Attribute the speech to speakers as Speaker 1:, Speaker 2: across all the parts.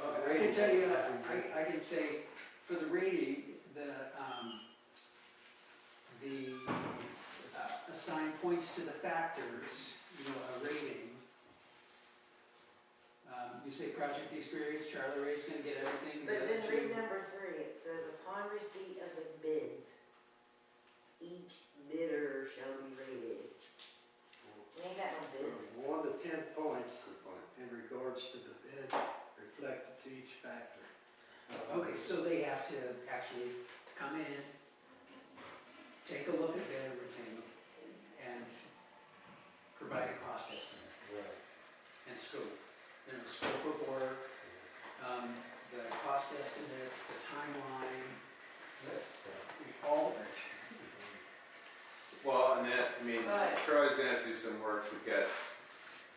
Speaker 1: I can tell you, I, I can say, for the rating, the, um, the uh, assign points to the factors, you know, a rating. Um, you say project experience, Charlie Ray's gonna get everything. the
Speaker 2: But
Speaker 1: other
Speaker 2: then read
Speaker 1: two-
Speaker 2: number three, it says upon receipt of the bids, each bidder shall be rated. We ain't got no bids.
Speaker 3: One to ten points in regards to the bid reflected to each factor.
Speaker 1: Okay, so they have to actually come in, take a look at everything, and provide a cost estimate.
Speaker 4: Right.
Speaker 1: and scope. You know, scope of work, um, the cost estimates, the timeline, all of it.
Speaker 5: Well, and that, I mean,
Speaker 2: Right.
Speaker 5: Troy's gonna have to do some work to get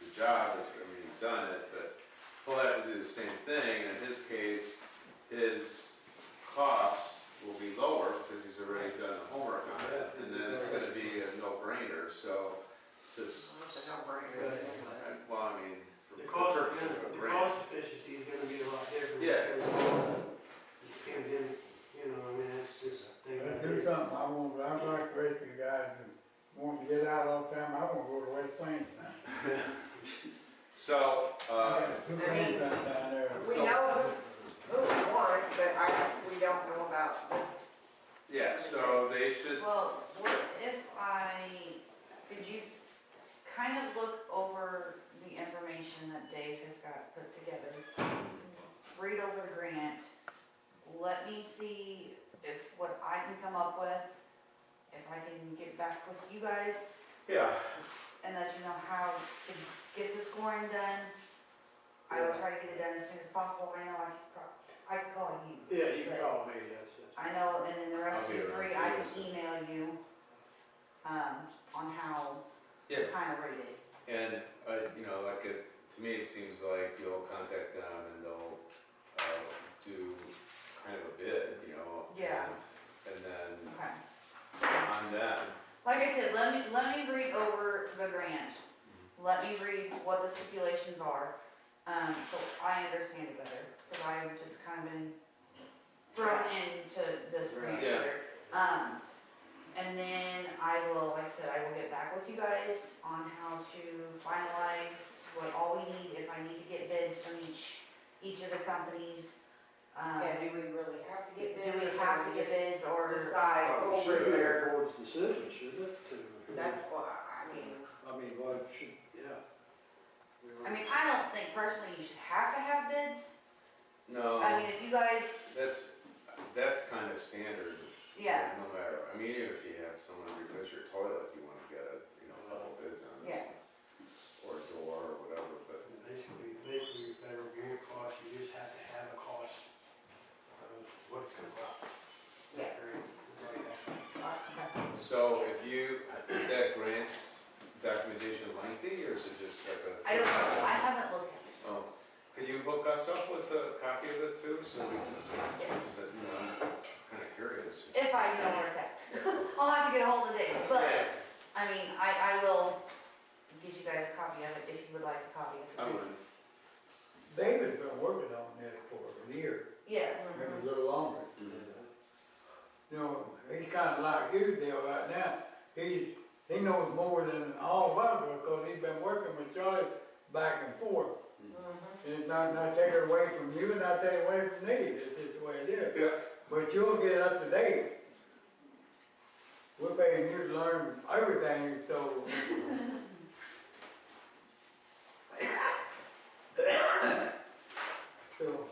Speaker 5: the job, is- I mean, he's done it, but he'll have to do the same thing, and in his case, his costs will be lower because he's already done the homework on it, and then it's gonna be a no-brainer, so just,
Speaker 2: It's a no-brainer, isn't it?
Speaker 5: well, I mean, for
Speaker 3: The
Speaker 5: the
Speaker 3: cost,
Speaker 5: purposes of a
Speaker 3: the
Speaker 5: grant.
Speaker 3: cost efficiency is gonna be a lot different.
Speaker 5: Yeah.
Speaker 3: You can't do, you know, I mean, that's just a thing.
Speaker 4: Let's do something, I want, I'd like to wait you guys and want to get out all the time, I want to go to West Plains now.
Speaker 5: So,
Speaker 4: I
Speaker 5: uh,
Speaker 4: got two friends down there.
Speaker 2: We know who, who we want, but I, we don't know about this.
Speaker 5: yeah, so they should,
Speaker 6: Well, what if I, could you kind of look over the information that Dave has got put together? Read over the grant, let me see if what I can come up with, if I can get back with you guys
Speaker 5: yeah,
Speaker 6: and let you know how to get the scoring done. I will try to get it done as soon as possible, I know I can, pro- I can call you.
Speaker 3: Yeah, you can call me, yes, yes.
Speaker 6: I know, and then the rest
Speaker 5: I'll be
Speaker 6: of you
Speaker 5: around
Speaker 6: three, I
Speaker 5: too,
Speaker 6: can email you, um, on how
Speaker 5: yeah.
Speaker 6: to kind of rate it.
Speaker 5: And, uh, you know, like it, to me, it seems like you'll contact them and they'll, uh, do kind of a bid, you know?
Speaker 6: Yeah.
Speaker 5: And and then
Speaker 6: Okay.
Speaker 5: on them,
Speaker 6: Like I said, let me, let me read over the grant. Let me read what the stipulations are, um, so I understand it better, because I have just kind of been thrown into this grant
Speaker 5: Right. Yeah.
Speaker 6: here. Um, and then I will, like I said, I will get back with you guys on how to finalize what all we need, if I need to get bids from each, each of the companies. Um,
Speaker 2: Yeah, Uh-huh. do we really have to
Speaker 6: do
Speaker 2: get bids?
Speaker 6: we have to get bids or?
Speaker 2: Decide
Speaker 5: Oh,
Speaker 2: over
Speaker 5: sure.
Speaker 2: here.
Speaker 3: board's decision, shouldn't it? to-
Speaker 2: That's why, I mean,
Speaker 3: I mean, well, it should, yeah.
Speaker 6: I mean, I don't think personally you should have to have bids. I
Speaker 5: no,
Speaker 6: mean, if you guys,
Speaker 5: that's, that's kind of standard.
Speaker 6: yeah,
Speaker 5: No matter, I mean, even if you have someone replace your toilet, you wanna get a, you know, a couple bids on
Speaker 6: Yeah.
Speaker 5: it. Or a door or whatever, but,
Speaker 3: Basically, basically your federal grant cost, you just have to have a cost of what it comes out.
Speaker 6: Yeah. okay.
Speaker 5: so if you, is that grant documentation lengthy or is it just like a?
Speaker 6: I don't know, I haven't looked at
Speaker 5: Oh, could you hook us up with a copy of it too, so we can,
Speaker 6: Yes.
Speaker 5: so, you know, I'm kind of curious.
Speaker 6: it, if I know where it's at. I'll have to get a hold of Dave, but, I mean, I, I will get you guys a copy of it if you would like a copy
Speaker 5: I
Speaker 6: of it.
Speaker 5: would,
Speaker 4: David's been working on that for a year,
Speaker 6: Yeah,
Speaker 4: maybe a little longer.
Speaker 5: mm,
Speaker 4: You know, he's kind of like you, Dale, right now. He's, he knows more than all of us because he's been working with Charlie back and forth. And it's not, not take it away from you, not take it away from me, it's just the way it is.
Speaker 5: Yeah.
Speaker 4: But you'll get up to date. We're paying you to learn everything, so. So,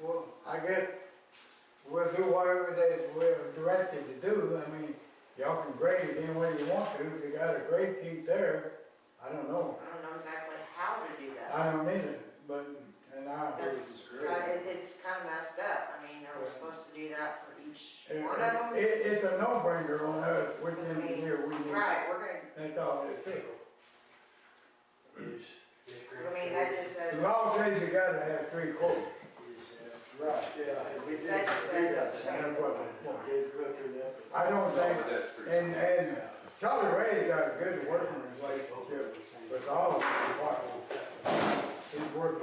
Speaker 4: well, I guess we'll do whatever they, we're directed to do, I mean, y'all can grade it any way you want to, if you got a grade sheet there, I don't know,
Speaker 2: I don't know exactly how to do that.
Speaker 4: I don't either, but, and I,
Speaker 2: That's, it- it's kind of messed up. I mean, are we
Speaker 4: Yeah.
Speaker 2: supposed to do that for each
Speaker 4: it,
Speaker 2: one of them?
Speaker 4: it- it's a no-brainer on us, we need here, we need,
Speaker 2: Right, we're gonna,
Speaker 4: that's all it is.
Speaker 2: I mean, that just
Speaker 4: The
Speaker 2: says,
Speaker 4: law says you gotta have three quotes,
Speaker 3: Right, yeah, and we did.
Speaker 2: That just says it's the
Speaker 4: and that's what I'm for.
Speaker 3: Did go through that.
Speaker 4: I don't
Speaker 5: but
Speaker 4: think,
Speaker 5: that's pretty.
Speaker 4: and, and Charlie Ray's got a good working relationship with all of us. He's worked